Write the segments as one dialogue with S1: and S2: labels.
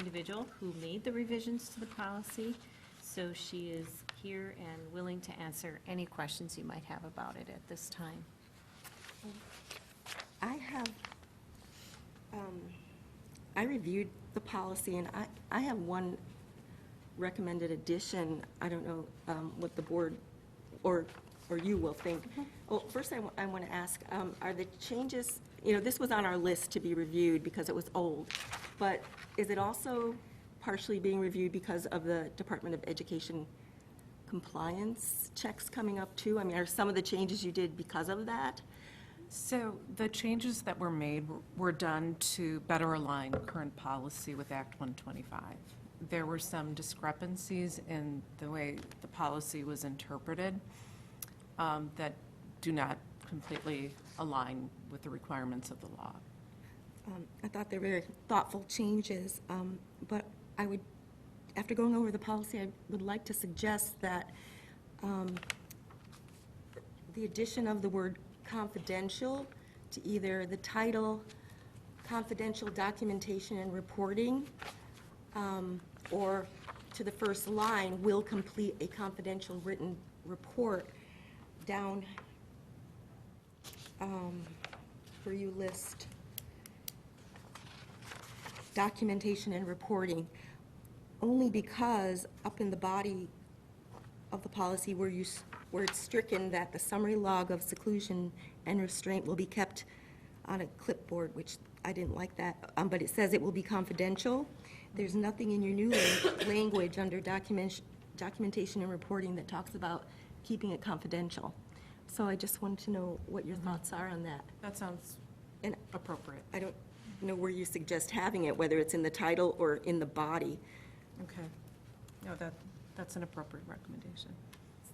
S1: individual who made the revisions to the policy, so she is here and willing to answer any questions you might have about it at this time.
S2: I have, um, I reviewed the policy, and I, I have one recommended addition. I don't know um, what the board, or, or you will think. Well, first, I, want to ask, um, are the changes, you know, this was on our list to be reviewed because it was old, but is it also partially being reviewed because of the Department of Education compliance checks coming up, too? I mean, are some of the changes you did because of that?
S3: So the changes that were made were done to better align current policy with Act 125. There were some discrepancies in the way the policy was interpreted um, that do not completely align with the requirements of the law.
S2: Um, I thought they were very thoughtful changes, um, but I would, after going over the policy, I would like to suggest that um, the addition of the word confidential to either the title, confidential documentation and reporting, um, or to the first line, will complete a confidential written report, down um, where you list documentation and reporting, only because up in the body of the policy where you, s- where it's stricken that the summary log of seclusion and restraint will be kept on a clipboard, which I didn't like that, um, but it says it will be confidential. There's nothing in your new lang- language under document, documentation and reporting that talks about keeping it confidential. So I just wanted to know what your thoughts are on that.
S3: That sounds
S2: And
S3: appropriate.
S2: I don't know where you suggest having it, whether it's in the title or in the body.
S3: Okay. No, that, that's an appropriate recommendation.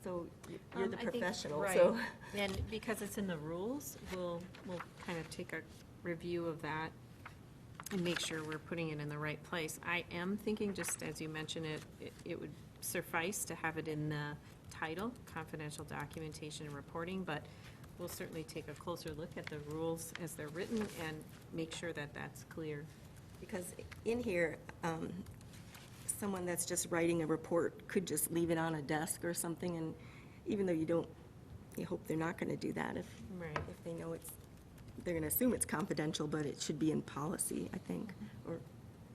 S2: So you're
S1: Um,
S2: the
S1: I think-
S2: professional,
S1: right.
S2: so.
S1: And because it's in the rules, we'll, we'll kind of take a review of that and make sure we're putting it in the right place. I am thinking, just as you mentioned it, it- it would suffice to have it in the title, confidential documentation and reporting, but we'll certainly take a closer look at the rules as they're written and make sure that that's clear.
S2: Because in here, um, someone that's just writing a report could just leave it on a desk or something, and even though you don't, you hope they're not going to do that if,
S1: Right.
S2: if they know it's, they're going to assume it's confidential, but it should be in policy, I think. Or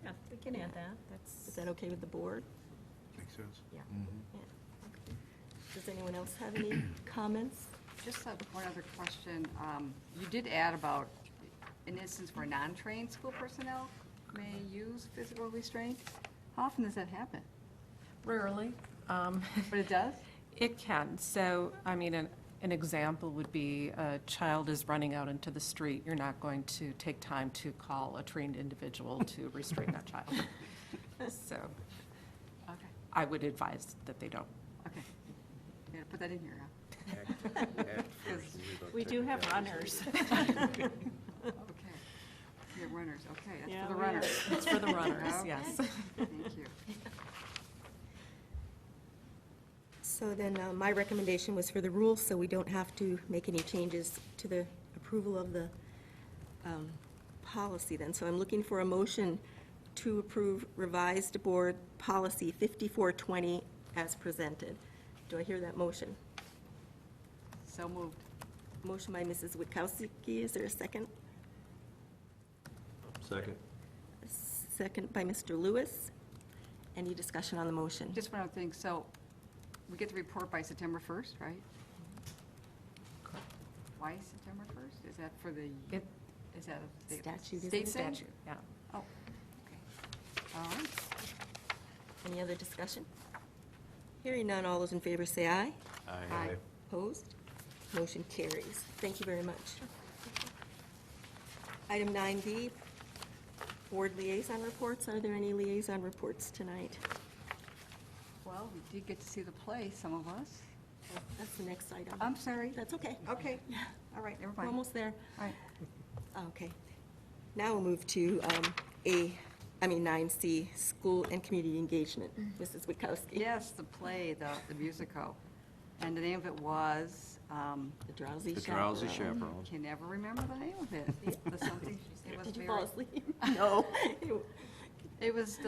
S1: Yeah, we can
S2: add
S1: that.
S2: is
S1: That's,
S2: that okay with the board?
S4: Makes sense.
S2: Yeah. Yeah. Okay. Does anyone else have any comments?
S5: Just had one other question. Um, You did add about an instance where non-trained school personnel may use physical restraint. How often does that happen?
S3: Rarely. um,
S5: But it does?
S3: It can. So, I mean, an, an example would be a child is running out into the street. You're not going to take time to call a trained individual to restrain that child. So
S5: Okay,
S3: I would advise that they don't.
S5: okay. Yeah, put that in here. huh?
S1: we do have runners.
S5: Okay. You have runners, okay.
S1: Yeah,
S5: That's for the
S1: we have-
S5: runners.
S3: It's for the runners,
S5: Okay,
S3: yes.
S5: Thank you.
S2: So then, uh, my recommendation was for the rules, so we don't have to make any changes to the approval of the um, policy then. So I'm looking for a motion to approve revised board policy 5420 as presented. Do I hear that motion?
S5: So moved.
S2: Motion by Mrs. Witkowski, is there a second?
S4: Second.
S2: Second by Mr. Lewis. Any discussion on the motion?
S5: Just one other thing, so we get the report by September 1st, right? Why September 1st? Is that for the,
S3: Mm-hmm. It-
S5: is that a state-
S2: Statute, isn't
S5: state
S2: it?
S5: thing?
S3: Statute, yeah.
S5: Oh, okay. All right.
S2: Any other discussion? Hearing none, all those in favor say aye.
S5: Aye.
S2: Opposed? Motion carries. Thank you very much. Item 9B, Board Liaison Reports. Are there any liaison reports tonight?
S5: Well, we did get to see the play, some of us.
S2: That's the next item.
S5: I'm sorry.
S2: That's okay.
S5: Okay. All right, never
S2: We're
S5: mind.
S2: almost there. Ah,
S5: All right.
S2: Okay. Now we'll move to um, A, I mean 9C, School and Community Engagement. Mrs. Witkowski.
S5: Mm. Yes, the play, the, the musical. And the name of it was, um,
S2: The drowsy
S4: The
S2: chaperone.
S4: drowsy chaperones.
S5: can never remember the name of it. The something- it was
S2: Did you
S5: very-
S2: fall asleep? No.
S5: It was